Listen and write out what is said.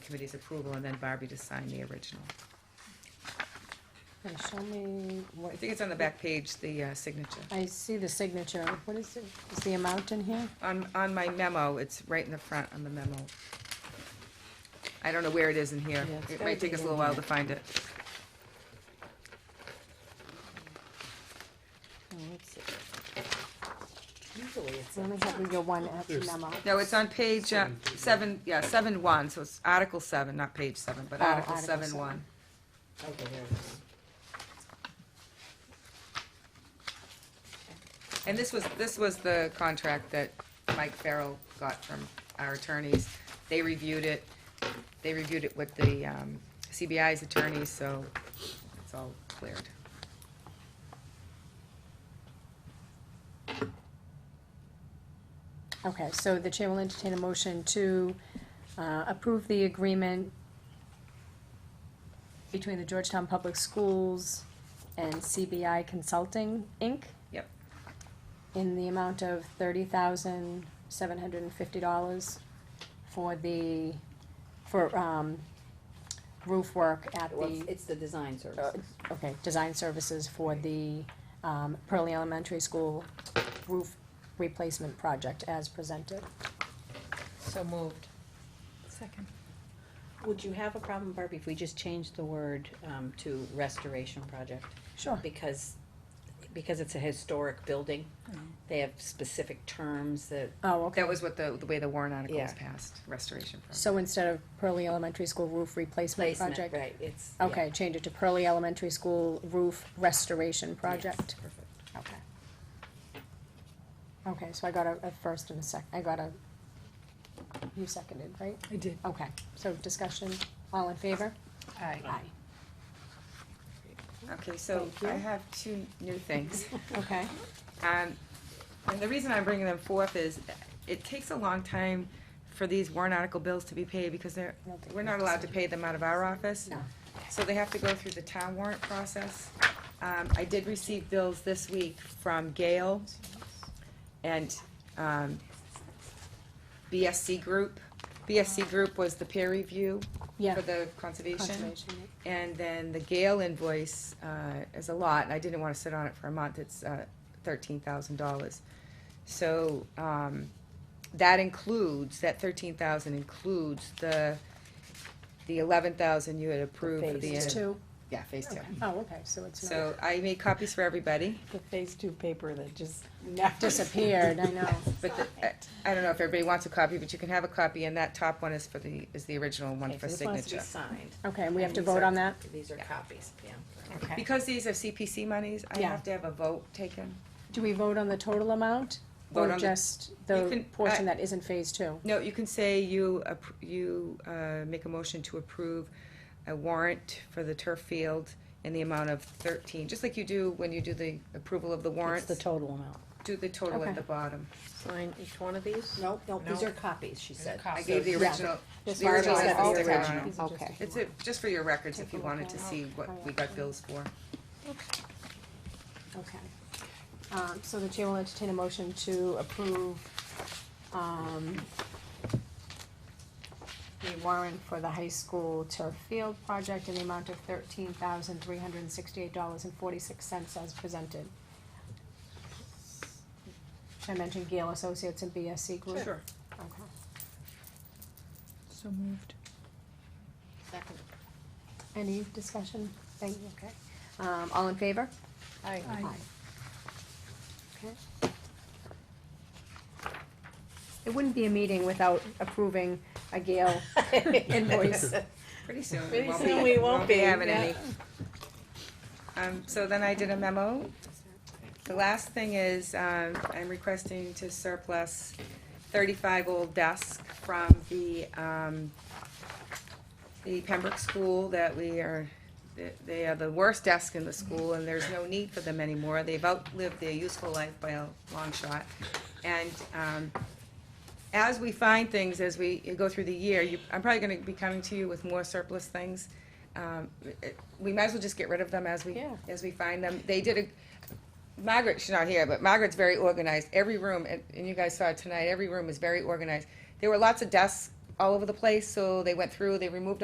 committee's approval and then Barbie to sign the original. Okay, show me what, I think it's on the back page, the uh, signature. I see the signature. What is it? Is the amount in here? On, on my memo, it's right in the front on the memo. I don't know where it is in here. Yeah, it's It might gotta take be us a little in while here. to find it. Oh, let's see. Usually it's Let me have your one F There's- memo. No, it's on page uh, seven, yeah, seven one, so it's Article seven, not page seven, but Oh, Article Article seven seven. one. okay, there it is. And this was, this was the contract that Mike Farrell got from our attorneys. They reviewed it, they reviewed it with the um, CBI's attorneys, so it's all cleared. Okay, so the chair will entertain a motion to uh, approve the agreement between the Georgetown Public Schools and CBI Consulting, Inc. Yep. in the amount of thirty thousand, seven hundred and fifty dollars for the, for, um, roof work at Well, it's- the, it's the design uh, services. okay, design services for the, um, Pearlie Elementary School roof replacement project as presented. So moved. Second. Would you have a problem, Barbie, if we just changed the word, um, to restoration project? Sure. Because, because it's a historic building, they have specific terms that, Oh, okay. That was what the, the way the Warren article was Yeah. passed, restoration. program. So instead of Pearlie Elementary School roof replacement placement, project? right, it's. yeah. Okay, change it to Pearlie Elementary School roof restoration project. Perfect. Okay. Okay, so I got a, a first and a sec, I got a, you seconded, right? I did. Okay, so discussion, all in favor? Aye. Okay, so Thank I you. have two new things. Okay, Um, and the reason I'm bringing them forth is it takes a long time for these warrant article bills to be paid because they're, I don't think we're we not have to allowed say. to pay them out of our office. No. So they have to go through the town warrant process. Um, I did receive bills this week from Gale and, um, BSC Group. BSC Group was the peer review yeah. for the conservation. Conservation, And then the Gale invoice uh, is a lot, and I didn't want to sit on it for a month, it's uh, thirteen thousand dollars. So um, that includes, that thirteen thousand includes the, the eleven thousand you had approved for yeah. the. Phase two, Yeah, phase two. oh, okay, so it's not So I made copies for everybody, The phase two paper that just never. disappeared, I know. but the- I I don't know if everybody wants a copy, but you can have a copy, and that top one is for the, is the original one Okay, for so this one has to be signature. signed. Okay, and we have to And these vote are- on that? These are copies, yeah. Okay. Because these are CPC monies, I Yeah. have to have a vote taken. Do we vote on the total amount? Vote Or on the- just You the can- uh, portion I- that isn't phase two? No, you can say you, appr- you uh, make a motion to approve a warrant for the turf field in the amount of thirteen, just like you do when you do the approval of the What's warrants, the total amount? do the total Okay. at the bottom. Sign each one of these? No, no, these No. are copies, she said. I gave the Yeah. original, This the one original is has all the sticker original. on it. Okay. It's a- just for your records, if Take a you look wanted at to it. see what we got bills for. Okay. Um, so the chair will entertain a motion to approve, um, the warrant for the high school turf field project in the amount of thirteen thousand three hundred and sixty-eight dollars and forty-six cents as presented. Should I mention Gale Associates and BSC Group? Sure. Okay. So moved. Second. Any discussion? Thank you, okay. Um, all in favor? Aye. Okay. It wouldn't be a meeting without approving a Gale invoice. Pretty soon, we Pretty won't soon be, we won't won't be be, having yeah. any. Um, so then I did a memo. The last thing is, um, I'm requesting to surplus thirty-five old desks from the, um, the Pembroke School that we are, they- they are the worst desk in the school and there's no need for them anymore. They've outlived their useful life by a long shot. And, um, as we find things, as we go through the year, you, I'm probably gonna be coming to you with more surplus things. Um, it- we might as well just get rid of them as we, Yeah. as we find them. They did a, Margaret, she's not here, but Margaret's very organized. Every room, and, and you guys saw it tonight, every room is very organized. There were lots of desks all over the place, so they went through, they removed